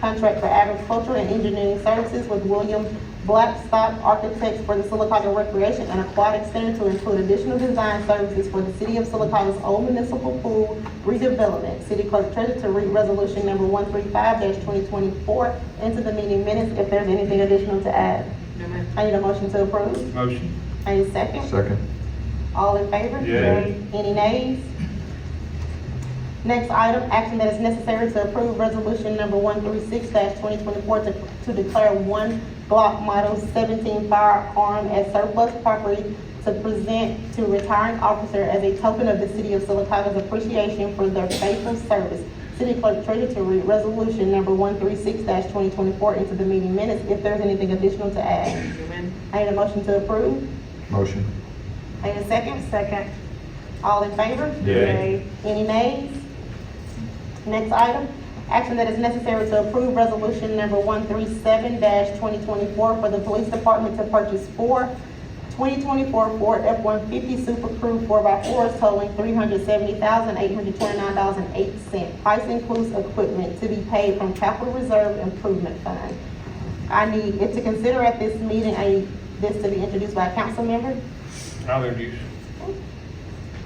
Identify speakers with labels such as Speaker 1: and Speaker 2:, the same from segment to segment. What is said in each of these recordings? Speaker 1: contract for agricultural and engineering services with William Blackstock Architects for the Silicaca Recreation and Aquatic Center to include additional design services for the city of Silicaca's old municipal pool redevelopment. City clerk treasurer to read resolution number one three five twenty twenty-four into the meeting minutes if there's anything additional to add.
Speaker 2: No, ma'am.
Speaker 1: I need a motion to approve.
Speaker 3: Motion.
Speaker 1: I need a second.
Speaker 4: Second.
Speaker 1: All in favor?
Speaker 3: Yay.
Speaker 1: Any nays? Next item, action that is necessary to approve resolution number one three six twenty twenty-four to, to declare one Glock Model seventeen firearm as surplus property to present to retiring officer as a token of the city of Silicaca's appreciation for their faithful service. City clerk treasurer to read resolution number one three six twenty twenty-four into the meeting minutes if there's anything additional to add.
Speaker 2: No, ma'am.
Speaker 1: I need a motion to approve.
Speaker 4: Motion.
Speaker 1: Need a second? Second. All in favor?
Speaker 3: Yay.
Speaker 1: Any nays? Next item, action that is necessary to approve resolution number one three seven twenty twenty-four for the police department to purchase four 2024 Ford F-150 Super Crew 4x4s totaling $370,829.08. Price includes equipment to be paid from capital reserve improvement fund. I need it to consider at this meeting, I need this to be introduced by a council member.
Speaker 3: I'll introduce.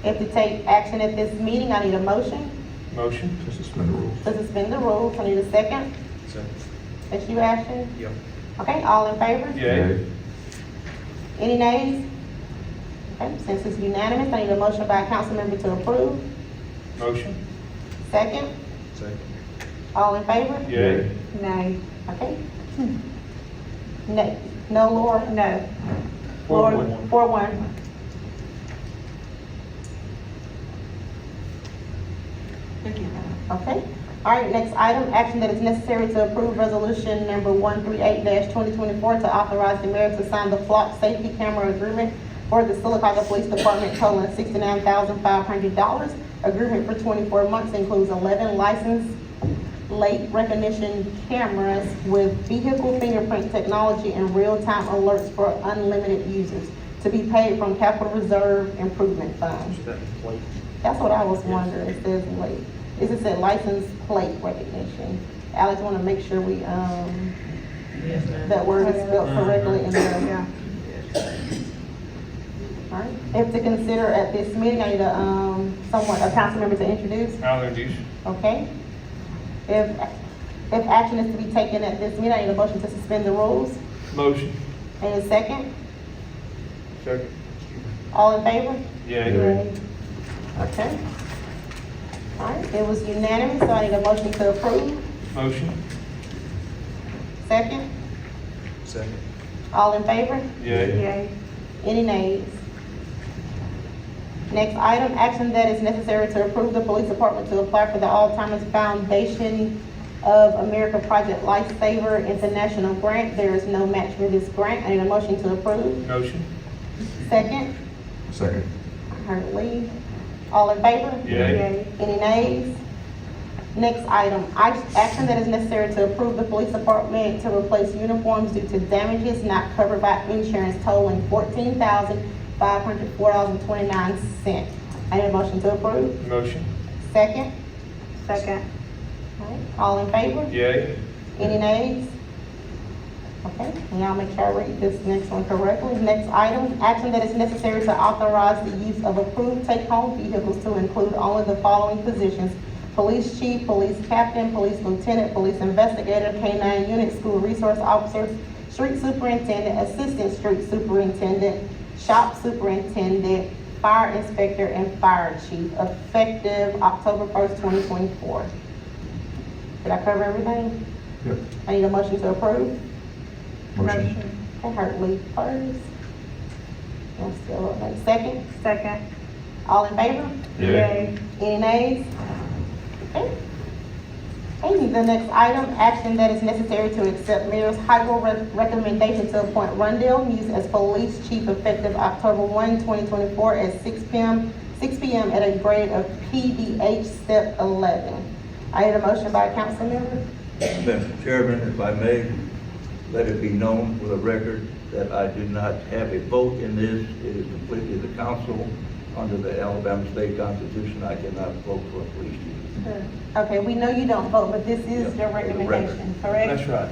Speaker 1: If to take action at this meeting, I need a motion
Speaker 3: Motion.
Speaker 4: To suspend the rules.
Speaker 1: to suspend the rules. I need a second.
Speaker 3: Second.
Speaker 1: That's you, Ashton?
Speaker 3: Yep.
Speaker 1: Okay, all in favor?
Speaker 3: Yay.
Speaker 1: Any nays? Okay, since it's unanimous, I need a motion by a council member to approve.
Speaker 3: Motion.
Speaker 1: Second,
Speaker 4: Second.
Speaker 1: all in favor?
Speaker 3: Yay.
Speaker 2: Nay. Hmm.
Speaker 1: Okay. No, no, Laura? No.
Speaker 3: Four,
Speaker 1: Laura,
Speaker 3: one.
Speaker 1: Four, one.
Speaker 2: Thank you.
Speaker 1: Okay. All right, next item, action that is necessary to approve resolution number one three eight twenty twenty-four to authorize the mayor to sign the flock safety camera agreement for the Silicaca Police Department totaling sixty-nine thousand five hundred dollars. Agreement for twenty-four months includes eleven licensed late recognition cameras with vehicle fingerprint technology and real-time alerts for unlimited users to be paid from capital reserve improvement funds. That's what I was wondering, it says late. It just said license plate recognition. Alex wanna make sure we, um,
Speaker 2: Yes, ma'am. Uh-huh.
Speaker 1: that word is spelled correctly in there.
Speaker 2: Yeah.
Speaker 1: Alright, if to consider at this meeting, I need a, um, someone, a council member to introduce,
Speaker 3: I'll introduce.
Speaker 1: okay? If, if action is to be taken at this meeting, I need a motion to suspend the rules.
Speaker 3: Motion.
Speaker 1: And a second,
Speaker 3: Second.
Speaker 1: all in favor?
Speaker 3: Yay.
Speaker 4: Yay.
Speaker 1: Okay. Alright, it was unanimous, so I need a motion to approve.
Speaker 3: Motion.
Speaker 1: Second,
Speaker 4: Second.
Speaker 1: all in favor?
Speaker 3: Yay.
Speaker 2: Yay.
Speaker 1: Any nays? Next item, action that is necessary to approve the police department to apply for the Alzheimer's Foundation of America Project Lifesaver International Grant. There is no match for this grant. I need a motion to approve.
Speaker 3: Motion.
Speaker 1: Second,
Speaker 4: Second.
Speaker 1: I heard Lee. All in favor?
Speaker 3: Yay.
Speaker 1: Any nays? Next item, ac- action that is necessary to approve the police department to replace uniforms due to damages not covered by insurance totaling fourteen thousand five hundred four dollars and twenty-nine cents. I need a motion to approve.
Speaker 3: Motion.
Speaker 1: Second?
Speaker 2: Second.
Speaker 1: Alright, All in favor?
Speaker 3: Yay.
Speaker 1: Any nays? Okay, now make sure I read this next one correctly. Next item, action that is necessary to authorize the use of approved take-home vehicles to include only the following positions. Police chief, police captain, police lieutenant, police investigator, K-9 unit, school resource officer, street superintendent, assistant street superintendent, shop superintendent, fire inspector, and fire chief, effective October 1st, 2024. Did I cover everything?
Speaker 4: Yep.
Speaker 1: I need a motion to approve.
Speaker 4: Motion.
Speaker 1: I heard Lee first. I'm still up, like, second.
Speaker 2: Second.
Speaker 1: All in favor?
Speaker 2: Yay.
Speaker 1: Any nays? Okay. Okay, the next item, action that is necessary to accept Mayor's Hyrule re- recommendation to appoint Rondell Muse as police chief effective October 1, 2024 at 6 PM, 6 PM at a grade of PDH step 11. I need a motion by a council member.
Speaker 5: Mr. Chairman, if I may, let it be known for the record that I do not have a vote in this. It is completely the council under the Alabama State Constitution, I cannot vote for a police chief.
Speaker 1: Okay, we know you don't vote, but this is
Speaker 5: Yeah,
Speaker 1: your
Speaker 5: for the record.
Speaker 1: recommendation, correct?
Speaker 5: That's right.